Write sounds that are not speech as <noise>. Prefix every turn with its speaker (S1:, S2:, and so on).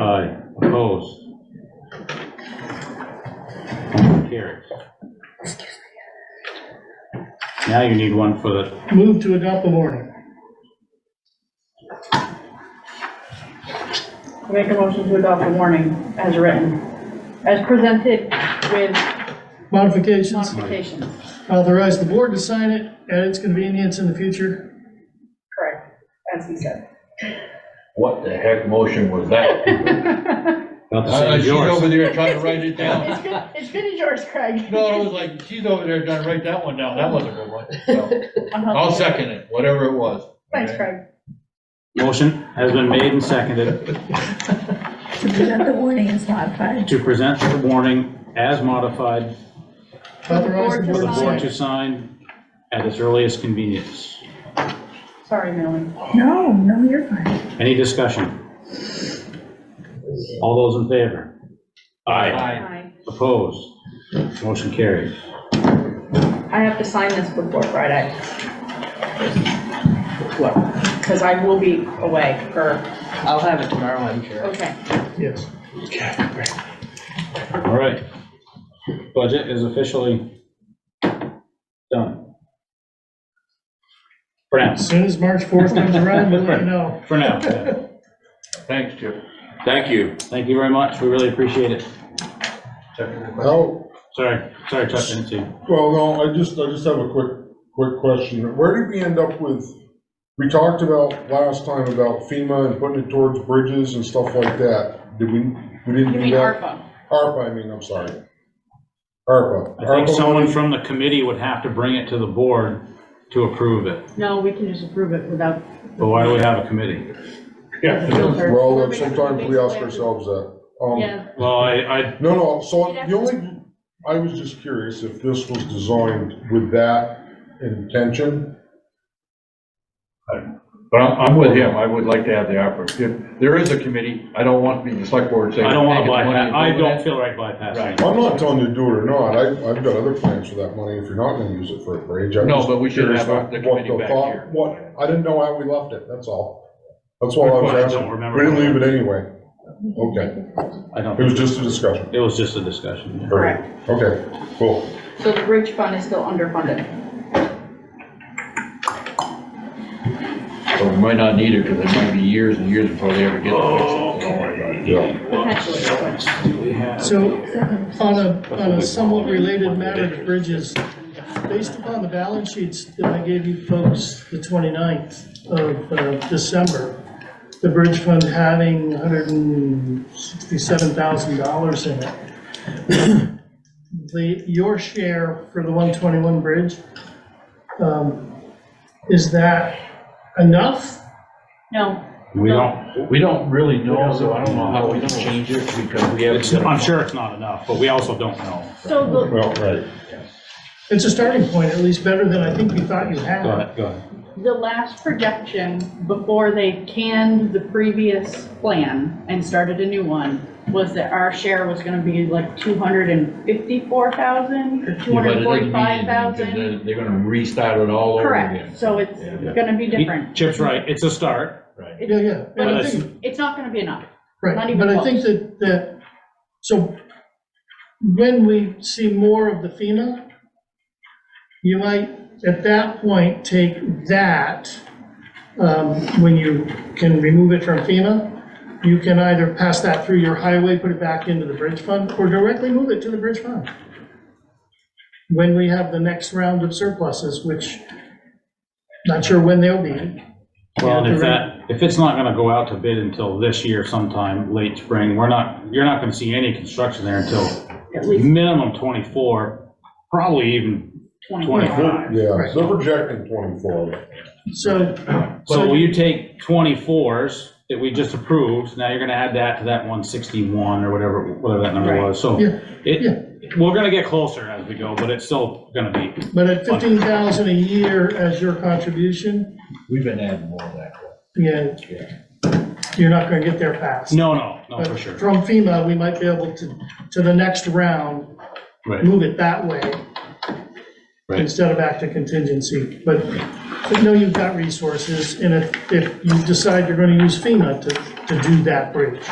S1: Aye. Opposed? Motion carries. Now you need one for the,
S2: Move to adopt the warning.
S3: Make a motion to adopt the warning as written, as presented with
S2: Modifications,
S3: modifications.
S2: authorize the board to sign it at its convenience in the future.
S3: Correct, as he said.
S4: What the heck motion was
S1: <laughs>
S4: that?
S1: about the same
S4: Uh,
S1: as
S4: She's over
S1: yours.
S4: there trying to write it down.
S3: It's good, it's good as yours, Craig.
S4: No, I was like, she's over there trying to write that one down. That wasn't a good one. So,
S3: Uh-huh.
S4: I'll second it, whatever it was.
S3: Thanks, Craig.
S1: Motion has been made and seconded
S5: To present the warning is modified.
S1: to present the warning as modified
S2: Authorize the
S1: for the
S2: board to
S1: board
S2: sign.
S1: to sign at its earliest convenience.
S3: Sorry, Millie.
S5: No, no, you're fine.
S1: Any discussion? All those in favor? Aye.
S4: Aye.
S3: Hi.
S1: Opposed? Motion carries.
S3: I have to sign this before Friday. Because I will be away, or,
S6: I'll have it tomorrow, I'm sure.
S3: okay.
S2: Yes.
S1: All right. Budget is officially done. For now,
S2: As soon as March 4th comes around, we'll let you know.
S1: for now. yeah.
S4: Thanks, Chip.
S7: Thank you.
S1: Thank you very much. We really appreciate it.
S8: Well,
S1: Sorry, sorry, Chuck, didn't see. you.
S8: well, no, I just, I just have a quick, quick question. Where did we end up with, we talked about last time about FEMA and putting it towards bridges and stuff like that. Did we, we
S3: You
S8: didn't do
S3: mean
S8: that?
S3: ARPA?
S8: ARPA, I mean, I'm sorry. ARPA.
S1: I think
S8: ARPA
S1: someone
S8: money-
S1: from the committee would have to bring it to the board to approve it.
S3: No, we can just approve it without.
S1: But why do we have a committee?
S8: Well, sometimes we ask ourselves that. Um,
S3: Yeah,
S1: Well, I, I,
S8: No, no, so
S3: You'd have
S8: the only, I was just curious if this was designed with that intention.
S4: But I'm, I'm with him. I would like to have the offer. If there is a committee, I don't want to be the select board saying.
S1: I don't want
S4: "Hey,
S1: to
S4: get the money
S1: bypass,
S4: and
S1: I
S4: go with
S1: don't
S4: it."
S1: feel right bypassing.
S4: Right.
S1: it.
S8: I'm not telling you to do it or not. I, I've got other plans for that money if you're not gonna use it for a bridge. I'm
S4: No,
S8: just
S4: but we should
S8: curious
S4: have our-
S8: what-
S4: the
S8: what
S4: committee back
S8: thought-
S4: here.
S8: What, I didn't know how we left it, that's all. That's all I was
S1: Well, I don't
S8: asking.
S1: remember.
S8: We didn't leave it anyway. Okay,
S1: I don't,
S8: it was just a discussion.
S1: it was just a discussion.
S3: Correct.
S8: Okay, cool.
S3: so the bridge fund is still underfunded.
S4: So we might not need it because it might be years and years before they ever get to fix
S1: Oh,
S4: it. Don't worry about it.
S8: Yeah.
S3: Potentially,
S2: So on a, on a somewhat related matter to bridges, based upon the balance sheets that I gave you folks the 29th of uh, December, the bridge fund having $167,000 in it. The, your share for the 121 bridge, um, is that enough?
S3: no,
S1: We don't,
S4: We don't really know, so I don't know how we can change it because we haven't.
S1: it's, I'm sure it's not enough, but we also don't know.
S3: so the,
S8: Well, right.
S2: It's a starting point, at least better than I think you thought you had.
S1: Go ahead, go ahead.
S3: The last projection, before they canned the previous plan and started a new one, was that our share was gonna be like two hundred and fifty-four thousand or two
S4: Yeah,
S3: hundred and
S4: but it doesn't mean
S3: forty-five
S4: anything, 'cause
S3: thousand.
S4: They're they're gonna restart it all over again.
S3: Correct, so it's
S4: Yeah.
S3: gonna be
S1: He-
S3: different.
S1: Chip's right, it's a start.
S4: Right.
S2: Yeah, yeah.
S3: But
S2: And I
S1: it's-
S2: think-
S3: It's not gonna be enough. Not
S2: Right,
S3: even
S2: but I think that, that, so when we see more of the FEMA, you might, at that point, take that, um, when you can remove it from FEMA, you can either pass that through your highway, put it back into the bridge fund, or directly move it to the bridge fund. When we have the next round of surpluses, which, not sure when they'll be.
S1: Well, and if that, if it's not gonna go out to bid until this year sometime, late spring, we're not, you're not gonna see any construction there until
S3: At least
S1: minimum twenty-four, probably even
S3: twenty-five.
S1: twenty-five.
S8: Yeah,
S2: Right.
S8: they're projecting twenty-four.
S2: So,
S1: So
S2: so
S1: will you take twenty-fours that we just approved, now you're gonna add that to that one sixty-one or whatever, whatever that number was, so
S2: Yeah, yeah.
S1: it, we're gonna get closer as we go, but it's still gonna be
S2: But at fifteen thousand a year as your contribution,
S4: We've been adding more of that.
S2: yeah, you're not gonna get there fast.
S1: No, no, no,
S2: But
S1: for sure.
S2: From FEMA, we might be able to, to the next round,
S1: Right.
S2: move it that way
S1: Right.
S2: instead of back to contingency. But, but no, you've got resources, and if, if you decide you're gonna use FEMA to, to do that bridge,